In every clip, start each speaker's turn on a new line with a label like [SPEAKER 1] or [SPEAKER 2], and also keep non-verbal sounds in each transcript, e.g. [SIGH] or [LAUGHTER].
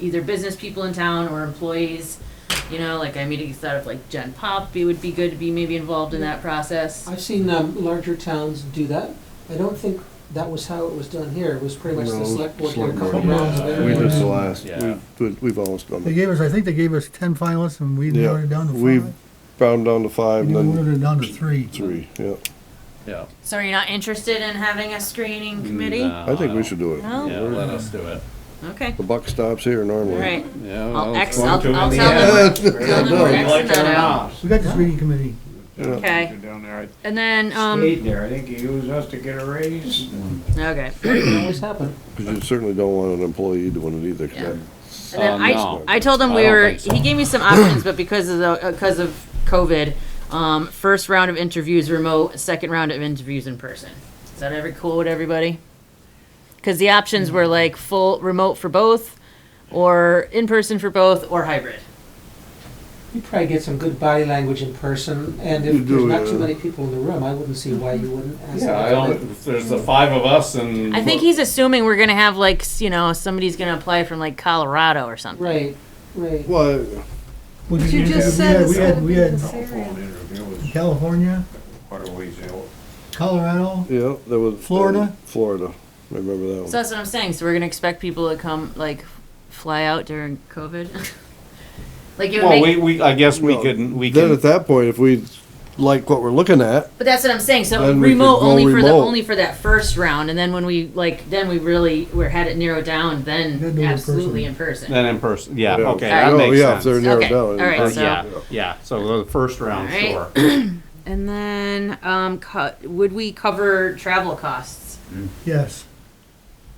[SPEAKER 1] either business people in town or employees. You know, like I immediately thought of like Gen Pop, it would be good to be maybe involved in that process.
[SPEAKER 2] I've seen um, larger towns do that. I don't think that was how it was done here. It was pretty much
[SPEAKER 3] No,
[SPEAKER 2] the select board did a
[SPEAKER 3] select
[SPEAKER 2] couple
[SPEAKER 3] board.
[SPEAKER 2] rounds of
[SPEAKER 3] We did
[SPEAKER 2] interviews.
[SPEAKER 3] the last,
[SPEAKER 4] Yeah.
[SPEAKER 3] we've, we've always done
[SPEAKER 5] They
[SPEAKER 3] it.
[SPEAKER 5] gave us, I think they gave us ten finalists and we
[SPEAKER 3] Yeah,
[SPEAKER 5] narrowed it down to
[SPEAKER 3] we
[SPEAKER 5] five.
[SPEAKER 3] Brought them down to five
[SPEAKER 5] We
[SPEAKER 3] and then
[SPEAKER 5] narrowed it down to three.
[SPEAKER 3] three, yeah.
[SPEAKER 4] Yeah.
[SPEAKER 1] So are you not interested in having a
[SPEAKER 4] Mm,
[SPEAKER 1] screening committee?
[SPEAKER 4] No,
[SPEAKER 3] I think we
[SPEAKER 1] Oh.
[SPEAKER 4] don't-
[SPEAKER 3] should do it.
[SPEAKER 1] No?
[SPEAKER 4] Yeah, let us do it.
[SPEAKER 1] Okay,
[SPEAKER 3] The buck stops here
[SPEAKER 1] all
[SPEAKER 3] normally.
[SPEAKER 1] right.
[SPEAKER 4] Yeah.
[SPEAKER 1] I'll
[SPEAKER 4] well,
[SPEAKER 1] X,
[SPEAKER 4] it's
[SPEAKER 1] I'll, I'll
[SPEAKER 4] going to
[SPEAKER 1] tell
[SPEAKER 4] in the
[SPEAKER 1] them,
[SPEAKER 3] [LAUGHS] Yeah,
[SPEAKER 1] tell them we're
[SPEAKER 3] no.
[SPEAKER 1] Xing that out.
[SPEAKER 5] We got the screening committee.
[SPEAKER 1] Okay,
[SPEAKER 6] Down there, I
[SPEAKER 1] and then, um,
[SPEAKER 6] stayed there, I think he used us to get a raise.
[SPEAKER 1] okay.
[SPEAKER 2] It always happened.
[SPEAKER 3] 'Cause you certainly don't want an employee doing it either, 'cause
[SPEAKER 1] Yeah.
[SPEAKER 3] that-
[SPEAKER 1] And then
[SPEAKER 4] Um,
[SPEAKER 1] I,
[SPEAKER 4] no.
[SPEAKER 1] I told him
[SPEAKER 4] I
[SPEAKER 1] we
[SPEAKER 4] don't
[SPEAKER 1] were.
[SPEAKER 4] think so.
[SPEAKER 1] He gave me some options, but because of the because of COVID, um, first round of interviews remote, second round of interviews in person. Is that ever cool with everybody? Because the options
[SPEAKER 4] Mm.
[SPEAKER 1] were like full remote for both, or in person for both, or hybrid.
[SPEAKER 2] You probably get some good body language in person, and
[SPEAKER 3] You
[SPEAKER 2] if there's
[SPEAKER 3] do,
[SPEAKER 2] not too
[SPEAKER 3] yeah.
[SPEAKER 2] many people in the room, I wouldn't see why you wouldn't ask.
[SPEAKER 4] Yeah, I
[SPEAKER 2] them.
[SPEAKER 4] don't, if there's the five of us and.
[SPEAKER 1] I think he's assuming we're gonna have like s- you know somebody's gonna apply from like Colorado or something.
[SPEAKER 2] Right, right.
[SPEAKER 3] Well,
[SPEAKER 5] What
[SPEAKER 7] You just said
[SPEAKER 5] We
[SPEAKER 7] it's
[SPEAKER 5] had,
[SPEAKER 7] gonna
[SPEAKER 5] we
[SPEAKER 7] be
[SPEAKER 5] had
[SPEAKER 7] in this area.
[SPEAKER 6] Telephone interview
[SPEAKER 5] we had
[SPEAKER 6] was
[SPEAKER 5] California,
[SPEAKER 6] quite a ways out.
[SPEAKER 5] Colorado,
[SPEAKER 3] yeah, there was.
[SPEAKER 5] Florida?
[SPEAKER 3] Florida, I remember that one.
[SPEAKER 1] So that's what I'm saying. So we're gonna expect people to come like fly out during COVID. [LAUGHS] like it would
[SPEAKER 4] Well,
[SPEAKER 1] make
[SPEAKER 4] we, we, I guess we
[SPEAKER 3] Well,
[SPEAKER 4] could, we
[SPEAKER 3] Then
[SPEAKER 4] can,
[SPEAKER 3] at that point, if we like what we're looking at,
[SPEAKER 1] But that's what I'm saying. So
[SPEAKER 3] Then we
[SPEAKER 1] remote
[SPEAKER 3] could go
[SPEAKER 1] only for the
[SPEAKER 3] remote.
[SPEAKER 1] only for that first round, and then when we like then we really were had it narrowed down. Then,
[SPEAKER 5] Then do it in
[SPEAKER 1] absolutely in person.
[SPEAKER 4] then in person, yeah,
[SPEAKER 3] Yeah.
[SPEAKER 4] okay,
[SPEAKER 1] Alright.
[SPEAKER 4] that
[SPEAKER 3] Oh,
[SPEAKER 4] makes
[SPEAKER 3] yeah, if
[SPEAKER 4] sense.
[SPEAKER 3] they're narrowed
[SPEAKER 1] Okay,
[SPEAKER 3] down.
[SPEAKER 1] alright,
[SPEAKER 4] Uh,
[SPEAKER 1] so-
[SPEAKER 4] Yeah, yeah, so the first round, sure.
[SPEAKER 1] Alright. [CLEARS THROAT] And then um, co- would we cover travel costs?
[SPEAKER 5] yes.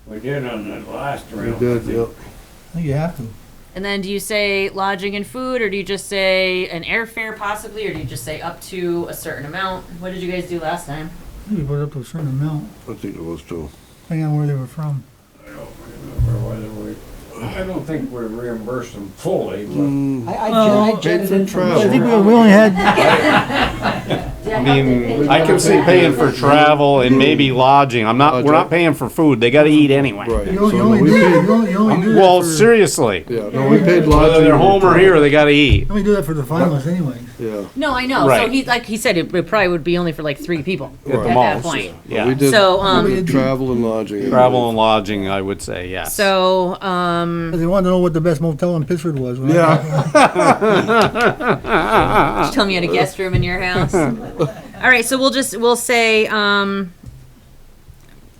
[SPEAKER 6] We did on that last
[SPEAKER 3] We
[SPEAKER 6] round.
[SPEAKER 3] did, yeah.
[SPEAKER 5] I think you have to.
[SPEAKER 1] And then do you say lodging and food, or do you just say an airfare possibly, or do you just say up to a certain amount? What did you guys do last time?
[SPEAKER 5] I think we put it up to a certain amount,
[SPEAKER 3] I think it was two.
[SPEAKER 5] depending on where they were from.
[SPEAKER 6] I don't remember whether we, I don't think we reimbursed them fully, but
[SPEAKER 2] I, I, well, I jetted in from.
[SPEAKER 3] travel.
[SPEAKER 5] I think we
[SPEAKER 2] Sure.
[SPEAKER 5] we only had,
[SPEAKER 4] I mean, I can see paying for travel and maybe lodging, I'm not, we're not paying for food, they gotta eat anyway.
[SPEAKER 3] Right.
[SPEAKER 5] you only- you
[SPEAKER 3] so no,
[SPEAKER 5] only
[SPEAKER 3] we
[SPEAKER 5] do,
[SPEAKER 3] paid-
[SPEAKER 5] you only, you only do
[SPEAKER 4] Well,
[SPEAKER 5] that for,
[SPEAKER 4] seriously,
[SPEAKER 3] Yeah, no, we paid lodging.
[SPEAKER 4] whether they're home or here, they gotta eat.
[SPEAKER 5] you only do that for the finalists anyway.
[SPEAKER 3] Yeah.
[SPEAKER 1] No, I know. So
[SPEAKER 4] Right.
[SPEAKER 1] he like he said it, it probably would be only for like three people
[SPEAKER 3] Right.
[SPEAKER 1] at
[SPEAKER 3] At the
[SPEAKER 1] that
[SPEAKER 4] most,
[SPEAKER 1] point.
[SPEAKER 3] But We
[SPEAKER 4] Yeah,
[SPEAKER 3] did,
[SPEAKER 1] So
[SPEAKER 3] we
[SPEAKER 1] um,
[SPEAKER 3] did travel and lodging.
[SPEAKER 4] travel and lodging, I would say, yes.
[SPEAKER 1] so um.
[SPEAKER 5] 'Cause They wanted to know what the best motel in Pittsford was. when I-
[SPEAKER 4] [LAUGHS]
[SPEAKER 3] Yeah,
[SPEAKER 1] Just tell me you had a guest room in your
[SPEAKER 3] [LAUGHS]
[SPEAKER 1] house. All right, so we'll just we'll say um,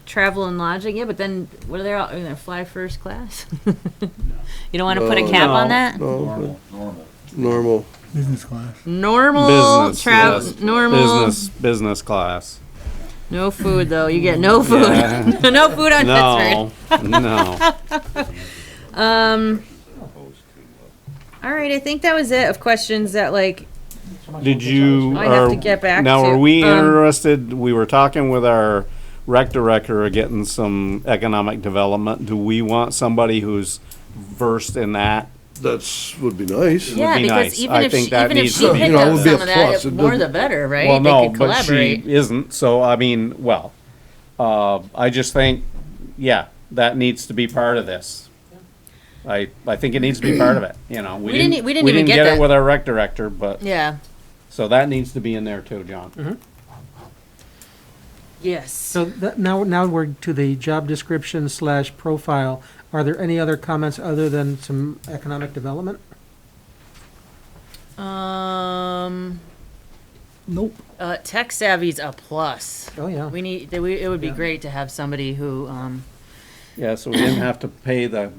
[SPEAKER 1] travel and lodging. Yeah, but then what are they all? Are they gonna fly first class? [LAUGHS] you don't want to put a
[SPEAKER 3] No.
[SPEAKER 1] cap on
[SPEAKER 4] No.
[SPEAKER 1] that.
[SPEAKER 3] no,
[SPEAKER 6] normal, normal.
[SPEAKER 3] normal.
[SPEAKER 5] Business class.
[SPEAKER 1] Normal
[SPEAKER 4] Business,
[SPEAKER 1] travel.
[SPEAKER 4] yes.
[SPEAKER 1] Normal.
[SPEAKER 4] Business, business class.
[SPEAKER 1] No food though. You get no food.
[SPEAKER 4] Yeah.
[SPEAKER 1] no food [LAUGHS] on Pittsburgh.
[SPEAKER 4] No, no.
[SPEAKER 1] Um. All right, I think that was it of questions that like
[SPEAKER 4] Did you?
[SPEAKER 1] I have to
[SPEAKER 4] are-
[SPEAKER 1] get back
[SPEAKER 4] Now,
[SPEAKER 1] to-
[SPEAKER 4] are we
[SPEAKER 1] um,
[SPEAKER 4] interested, we were talking with our rec director of getting some economic development. Do we want somebody who's versed in that?
[SPEAKER 3] That's, would be nice.
[SPEAKER 1] yeah
[SPEAKER 4] be
[SPEAKER 1] because
[SPEAKER 4] nice.
[SPEAKER 1] even
[SPEAKER 4] I
[SPEAKER 1] if
[SPEAKER 4] think
[SPEAKER 1] she
[SPEAKER 4] that
[SPEAKER 1] even if
[SPEAKER 4] needs
[SPEAKER 1] she
[SPEAKER 4] to be
[SPEAKER 1] picked
[SPEAKER 3] You know, it
[SPEAKER 1] up
[SPEAKER 3] would be a
[SPEAKER 1] some of that,
[SPEAKER 3] plus.
[SPEAKER 1] it,
[SPEAKER 3] It
[SPEAKER 1] more
[SPEAKER 3] doesn't-
[SPEAKER 1] the better, right?
[SPEAKER 4] Well,
[SPEAKER 1] they
[SPEAKER 4] no,
[SPEAKER 1] could
[SPEAKER 4] but she
[SPEAKER 1] collaborate.
[SPEAKER 4] isn't, so I mean, well, uh, I just think, yeah, that needs to be part of this. I, I think it needs to be part of it, you know,
[SPEAKER 1] We
[SPEAKER 4] we
[SPEAKER 1] didn't- e-,
[SPEAKER 4] didn't,
[SPEAKER 1] we
[SPEAKER 4] we
[SPEAKER 1] didn't even
[SPEAKER 4] didn't
[SPEAKER 1] get
[SPEAKER 4] get it
[SPEAKER 1] that.
[SPEAKER 4] with our rec director, but,
[SPEAKER 1] yeah.
[SPEAKER 4] so that needs to be in there too, John.
[SPEAKER 1] Yes.
[SPEAKER 8] So that, now, now we're to the job description slash profile. Are there any other comments other than some economic development?
[SPEAKER 1] Um,
[SPEAKER 5] Nope.
[SPEAKER 1] uh, tech savvy's a plus.
[SPEAKER 8] Oh, yeah.
[SPEAKER 1] We need. that We, it would be great to have somebody who. Um,
[SPEAKER 4] Yeah, so we didn't have to pay the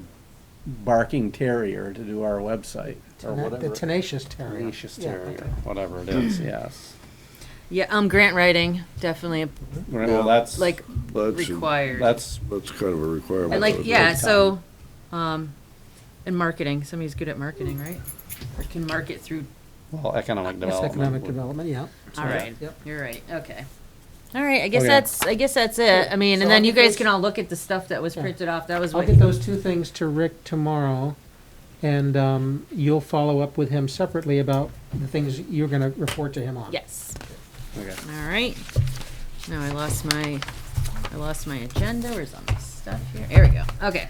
[SPEAKER 4] barking terrier to do our website, or
[SPEAKER 8] The
[SPEAKER 4] whatever.
[SPEAKER 8] tenacious terrier.
[SPEAKER 4] Tenacious terrier, whatever it is, yes.
[SPEAKER 1] yeah. Um, grant writing definitely
[SPEAKER 4] Well, that's,
[SPEAKER 1] like
[SPEAKER 3] That's,
[SPEAKER 1] required.
[SPEAKER 4] that's,
[SPEAKER 3] that's kind of a requirement.
[SPEAKER 1] and like
[SPEAKER 3] of it.
[SPEAKER 1] yeah. So, um, and marketing. Somebody's good at marketing, right? Or can market through.
[SPEAKER 4] well, economic
[SPEAKER 8] Yes,
[SPEAKER 4] development.
[SPEAKER 8] economic
[SPEAKER 4] would-
[SPEAKER 8] development, yeah.
[SPEAKER 1] All right.
[SPEAKER 8] Yep. Oh,
[SPEAKER 1] You're right. Okay. All right. I guess
[SPEAKER 4] Okay.
[SPEAKER 1] that's. I guess that's it. I mean,
[SPEAKER 2] So
[SPEAKER 1] and then
[SPEAKER 2] I'll
[SPEAKER 1] you
[SPEAKER 2] get
[SPEAKER 1] guys
[SPEAKER 2] those-
[SPEAKER 1] can all look at the stuff that was
[SPEAKER 8] Yeah.
[SPEAKER 1] printed off. That was
[SPEAKER 8] I'll
[SPEAKER 1] what.
[SPEAKER 8] get those two things to Rick tomorrow, and, um, you'll follow up with him separately about the things you're gonna report to him on.
[SPEAKER 1] Yes.
[SPEAKER 4] Okay.
[SPEAKER 1] All right. Now I lost my, I lost my agenda. Where's all my stuff here? There we go. Okay.